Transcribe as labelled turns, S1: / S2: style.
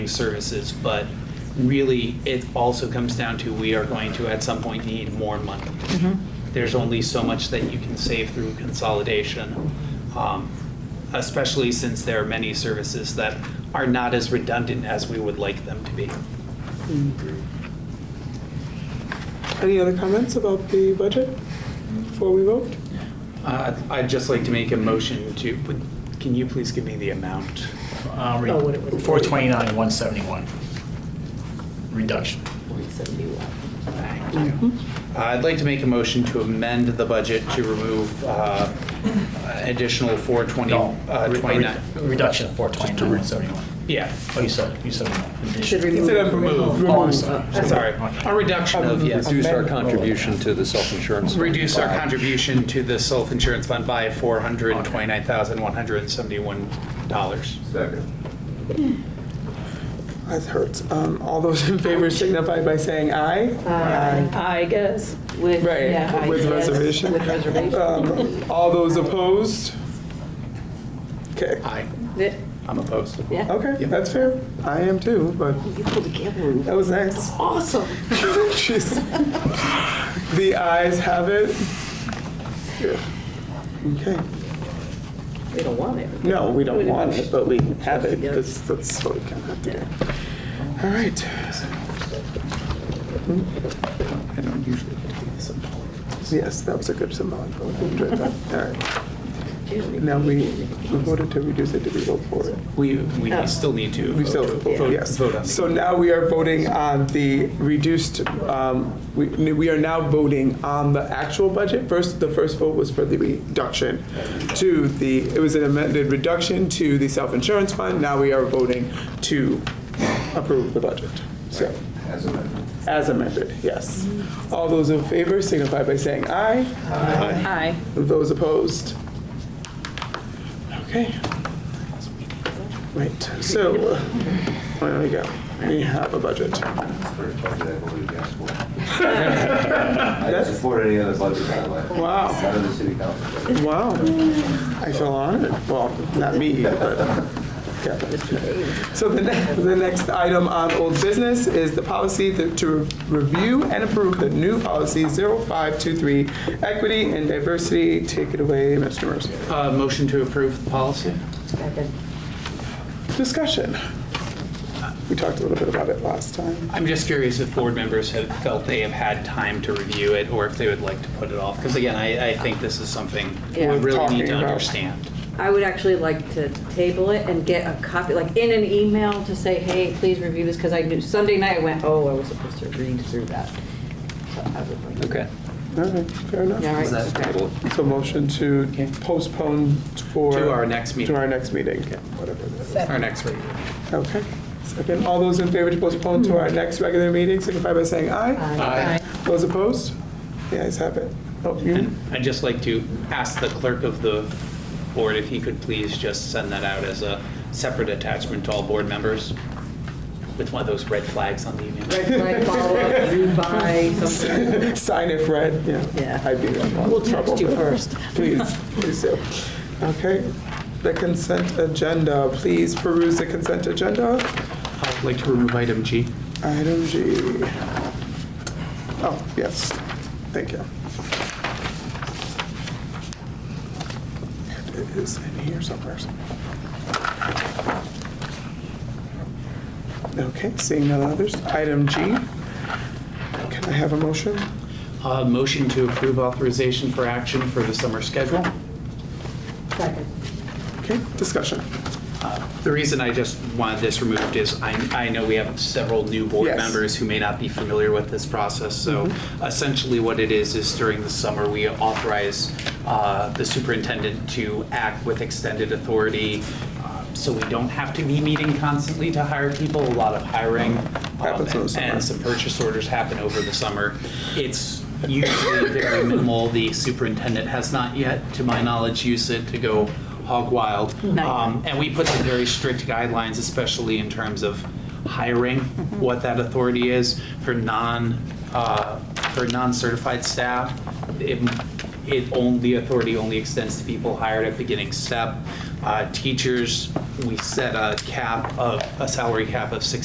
S1: services, but really, it also comes down to, we are going to at some point need more money. There's only so much that you can save through consolidation, um, especially since there are many services that are not as redundant as we would like them to be. Mm-hmm.
S2: Any other comments about the budget before we vote?
S1: Uh, I'd just like to make a motion to, would- can you please give me the amount?
S3: Uh, re-
S4: Oh, what it was.
S3: 429, 171. Reduction.
S4: 171.
S1: Thank you. Uh, I'd like to make a motion to amend the budget to remove uh, additional 420,
S3: No,
S1: uh,
S3: re-
S1: 29.
S3: re- Reduction of 429, 171.
S1: Yeah,
S3: Oh, you said, you said one.
S4: Should
S3: Addition.
S4: remove.
S2: Instead of
S4: remove.
S3: Oh, I'm sorry.
S1: sorry.
S3: Okay.
S1: A reduction of, yes,
S5: Reduce our
S2: Amendment.
S5: contribution to the self-insurance. fund
S1: reduce our
S5: by-
S1: contribution to the self-insurance fund by $429,171.
S2: That hurts. Um, all those in favor signify by saying aye.
S4: I guess. With,
S2: Right,
S4: yeah, I
S2: with
S4: guess,
S2: reservation.
S4: With reservation.
S2: Um, all those opposed? Okay,
S1: Aye,
S4: Th-
S1: I'm opposed.
S4: Yeah,
S2: okay, that's fair. I am too, but
S4: you pulled a Cameron.
S2: that was nice.
S4: Awesome.
S2: Jeez. The ayes have it. Okay.
S4: We don't want it.
S2: No, we don't want it, but we have it, because that's what we kind of have to do. All right.
S1: I don't usually do this.
S2: Yes, that was a good symbolic vote. I enjoyed that. All right. Now, we we voted to reduce it, did we vote for it?
S1: We, we still need to.
S2: We still,
S1: vote-
S2: voted, yes.
S1: Vote on
S2: So
S1: the,
S2: now we are voting on the reduced, um, we we are now voting on the actual budget. First, the first vote was for the reduction to the, it was an amended reduction to the self-insurance fund. Now we are voting to approve the budget. So, as amended, yes. All those in favor signify by saying aye.
S4: Aye.
S2: Those opposed? Okay. Right, so, uh, where do we go? We have a budget.
S6: first budget I've voted yes for. I don't support any other budget, by the way.
S2: Wow.
S6: None of the city council.
S2: Wow. I feel honored. Well, not me, but Kevin. So the next, the next item on old business is the policy that- to review and approve the new policy 0523, equity and diversity. Take it away, Mr. Mercer.
S1: uh, motion to approve the policy?
S2: Discussion. We talked a little bit about it last time.
S1: I'm just curious if board members have felt they have had time to review it, or if they would like to put it off, because again, I, I think this is something we
S4: Yeah.
S1: really need
S2: Talking
S1: to
S2: about-
S1: understand.
S4: I would actually like to table it and get a copy, like in an email to say, hey, please review this, because I knew, Sunday night I went, oh, I was supposed to read through that. So I would like-
S5: Okay.
S2: All right, fair
S4: Yeah,
S2: enough.
S4: all right.
S5: Table it.
S2: So motion to postpone for.
S1: To our next meeting.
S2: To our next meeting, whatever it is.
S1: Our next regular.
S2: Okay. Second, all those in favor to postpone to our next regular meeting, signify by saying aye.
S1: Aye.
S2: Those opposed? The ayes have it. Oh, you,
S1: I'd just like to ask the clerk of the board if he could please just send that out as a separate attachment to all board members with one of those red flags on the email.
S4: Red flag follow up, you buy something.
S2: sign if red, yeah.
S4: Yeah.
S2: I'd be in trouble.
S4: We'll text you first.
S2: Please, please do. Okay. The consent agenda, please peruse the consent agenda.
S1: I'd like to remove item G.
S2: Item G. Oh, yes, thank you. It is in here somewhere. Okay, seeing none others, item G. Can I have a motion?
S1: Uh, motion to approve authorization for action for the summer schedule.
S4: Second.
S2: Okay, discussion.
S1: The reason I just wanted this removed is I, I know we have several new board
S2: Yes. Mm-hmm.
S1: members who may not be familiar with this process. So essentially what it is, is during the summer, we authorize uh, the superintendent to act with extended authority. uh, So we don't have to be meeting constantly to hire people. A lot of hiring um,
S2: Happens in the summer.
S1: and some purchase orders happen over the summer. It's usually very minimal. The superintendent has not yet, to my knowledge, used it to go hog wild.
S4: Not yet.
S1: Um, and we put some very strict guidelines, especially in terms of hiring, what that authority is for non, uh, for non-certified staff. It, it only, the authority only extends to people hired at beginning step. Uh, Teachers, we set a cap of, a salary cap of six.